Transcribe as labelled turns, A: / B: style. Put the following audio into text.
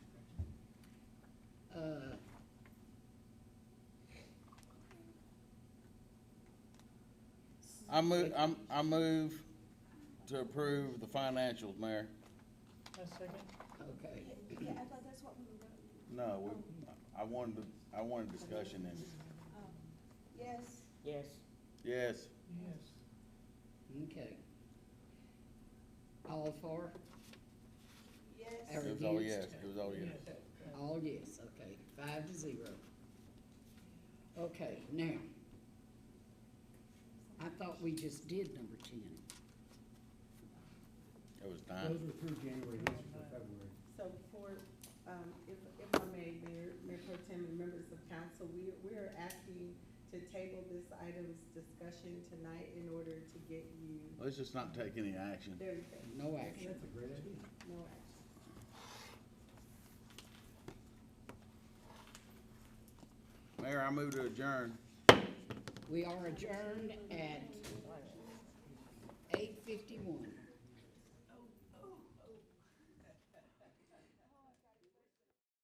A: Uh,
B: I move, I'm, I move to approve the financials, Mayor.
C: A second.
A: Okay.
D: Yeah, I thought that's what we were doing.
B: No, we- I wanted, to- I wanted discussion in it.
D: Um, Yes,
C: Yes.
B: Yes,
C: Yes.
A: Okay. All for,
D: yes,
A: Every-
B: it was all yes, it was all yes.
A: all yes, okay, five to zero. Okay, now. I thought we just did number ten.
B: It was
E: Those
B: nine.
E: were through January, these are for February.
F: So for, um, if, if I may, Mayor, Mayor Pro Tem and members of council, we, we are asking to table this item's discussion tonight in order to get you,
B: Let's just not take any action.
F: there you go,
A: No action.
E: That's a great idea.
F: no action.
B: Mayor, I move to adjourn.
A: We are adjourned at eight fifty-one.